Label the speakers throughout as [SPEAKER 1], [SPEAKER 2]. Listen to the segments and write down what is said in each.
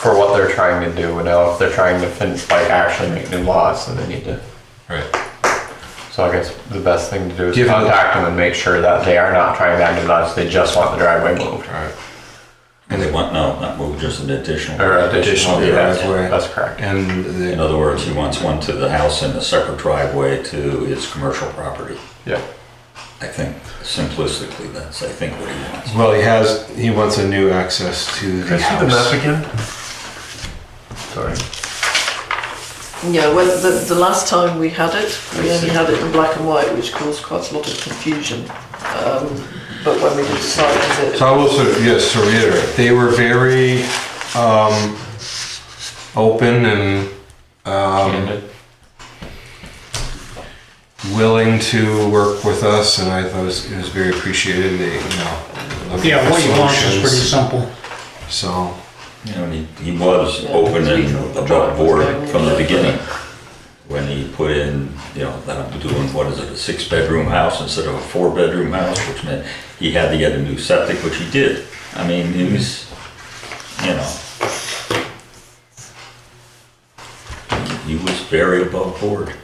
[SPEAKER 1] for what they're trying to do. You know, if they're trying to fin- like actually make new laws, then they need to.
[SPEAKER 2] Right.
[SPEAKER 1] So I guess the best thing to do is
[SPEAKER 2] Give them-
[SPEAKER 1] contact them and make sure that they are not trying to act as They just want the driveway moved.
[SPEAKER 2] All right.
[SPEAKER 3] And they want, no, not move, just an additional.
[SPEAKER 1] Or additional
[SPEAKER 2] Additional
[SPEAKER 1] yeah,
[SPEAKER 2] driveway.
[SPEAKER 1] That's correct.
[SPEAKER 2] And the,
[SPEAKER 3] In other words, he wants one to the house and a separate driveway to his commercial property.
[SPEAKER 1] Yeah.
[SPEAKER 3] I think simplistically, that's, I think, what he wants.
[SPEAKER 2] well, he has he wants a new access to the house.
[SPEAKER 1] again? Sorry.
[SPEAKER 4] Yeah, when the, the last time we had it, we only had it in black and white, which caused quite a lot of confusion. Um, but when we did decide it,
[SPEAKER 2] So I will sort of, yes, to reiterate, they were very um, open and um,
[SPEAKER 1] Candid.
[SPEAKER 2] willing to work with us, and I thought it was, it was very appreciated. They, you know, looking
[SPEAKER 5] Yeah,
[SPEAKER 2] for
[SPEAKER 5] what you want is pretty
[SPEAKER 2] solutions.
[SPEAKER 5] simple.
[SPEAKER 2] So
[SPEAKER 3] You know, and he, he was
[SPEAKER 4] Yeah,
[SPEAKER 3] open
[SPEAKER 4] it's
[SPEAKER 3] and
[SPEAKER 4] legal.
[SPEAKER 3] above board from the beginning. When he put in, you know, that I'm doing, what is it, a six-bedroom house instead of a four-bedroom house, which meant he had to get a new septic, which he did. I mean, it was, you know. He was very above board.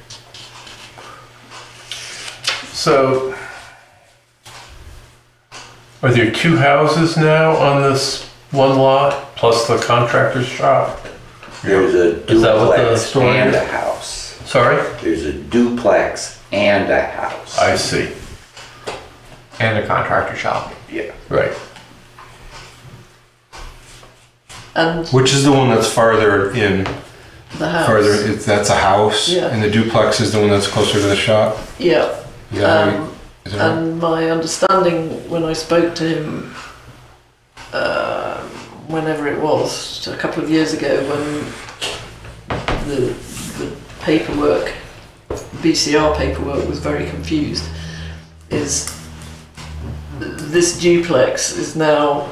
[SPEAKER 6] So, are there two houses now on this one lot, plus the contractor's shop?
[SPEAKER 7] There's a
[SPEAKER 6] Is that what the
[SPEAKER 7] duplex
[SPEAKER 6] story
[SPEAKER 7] and
[SPEAKER 6] is?
[SPEAKER 7] a house.
[SPEAKER 6] Sorry?
[SPEAKER 7] There's a duplex and a house.
[SPEAKER 6] I see,
[SPEAKER 1] And a contractor shop.
[SPEAKER 7] Yeah.
[SPEAKER 6] right.
[SPEAKER 4] and
[SPEAKER 2] Which is the one that's farther in,
[SPEAKER 4] the house.
[SPEAKER 2] farther, it's, that's a house,
[SPEAKER 4] Yeah.
[SPEAKER 2] and the duplex is the one that's closer to the shop.
[SPEAKER 4] Yeah.
[SPEAKER 2] Is that right?
[SPEAKER 4] Um,
[SPEAKER 2] Is that right?
[SPEAKER 4] And my understanding when I spoke to him, uh, whenever it was, a couple of years ago, when the, the paperwork, BCR paperwork, was very confused, is this duplex is now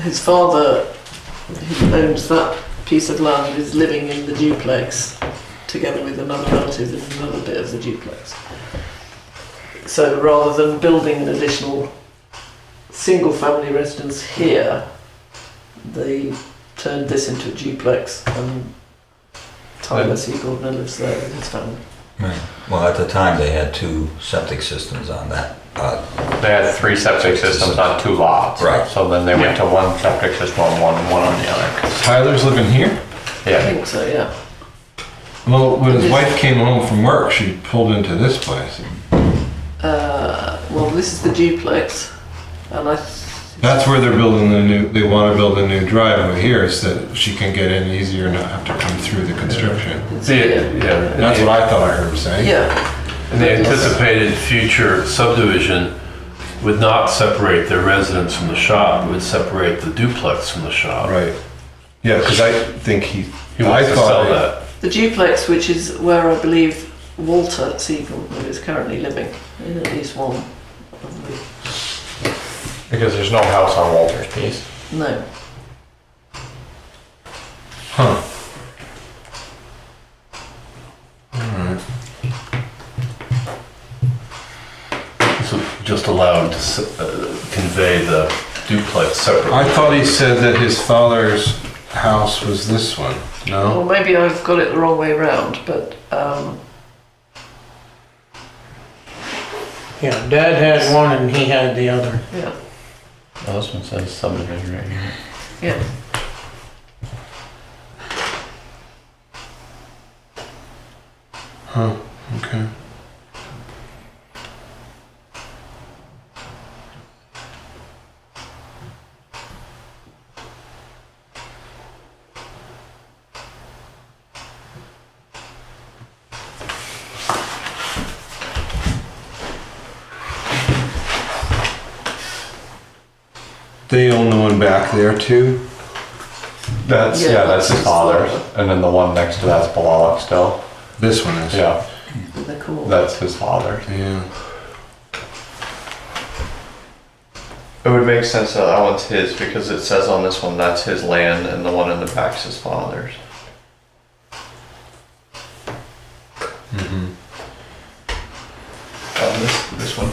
[SPEAKER 4] his father, who owns that piece of land, is living in the duplex together with another relative in another bit of the duplex. So rather than building an additional single family residence here, they turned this into a duplex and Tyler C. Gordon lives there with his family.
[SPEAKER 3] Well, at the time, they had two septic systems on that, uh,
[SPEAKER 1] They had three septic systems on two lots.
[SPEAKER 3] Right.
[SPEAKER 1] So then they went to one septic system on one and one on the other.
[SPEAKER 2] Tyler's living here?
[SPEAKER 4] I
[SPEAKER 1] Yeah.
[SPEAKER 4] think so, yeah.
[SPEAKER 2] Well, when his
[SPEAKER 4] This-
[SPEAKER 2] wife came home from work, she pulled into this place.
[SPEAKER 4] Uh, well, this is the duplex, and I.
[SPEAKER 2] That's where they're building the new, they want to build a new driveway here so that she can get in easier and not have to come through the construction.
[SPEAKER 4] it's-
[SPEAKER 6] The-
[SPEAKER 4] yeah.
[SPEAKER 6] yeah.
[SPEAKER 2] That's what I thought I heard him say.
[SPEAKER 4] Yeah,
[SPEAKER 6] And the anticipated future subdivision would not separate their residence from the shop, it would separate the duplex from the shop.
[SPEAKER 2] Right. Yeah, because I think he,
[SPEAKER 6] He
[SPEAKER 2] I
[SPEAKER 6] wants to sell
[SPEAKER 2] thought,
[SPEAKER 6] that.
[SPEAKER 4] the duplex, which is where I believe Walter C. Gordon is currently living, in at least one. of the-
[SPEAKER 1] Because there's no house on Walter's piece.
[SPEAKER 4] No,
[SPEAKER 2] huh.
[SPEAKER 6] So just allow them to s- uh, convey the duplex separately.
[SPEAKER 2] I thought he said that his father's house was this one. No?
[SPEAKER 4] Well, maybe I've got it the wrong way round, but um,
[SPEAKER 5] Yeah, Dad had one and he had the other.
[SPEAKER 4] yeah,
[SPEAKER 1] Oh, this one says subdivision right here.
[SPEAKER 4] yeah.
[SPEAKER 2] Huh. Okay. They own the one back there too.
[SPEAKER 1] That's,
[SPEAKER 4] Yeah,
[SPEAKER 1] yeah, that's his
[SPEAKER 4] that's his
[SPEAKER 1] father's.
[SPEAKER 4] father.
[SPEAKER 1] And then the one next to that's Balalock still.
[SPEAKER 2] This one is.
[SPEAKER 1] Yeah,
[SPEAKER 4] They're cool.
[SPEAKER 1] that's his father's.
[SPEAKER 2] Yeah.
[SPEAKER 1] It would make sense that that one's his because it says on this one that's his land and the one in the back's his father's. Mm-hmm. Um, this, this one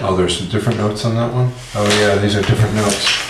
[SPEAKER 1] here.
[SPEAKER 2] Oh, there's some different notes on that one? Oh, yeah, these are different notes.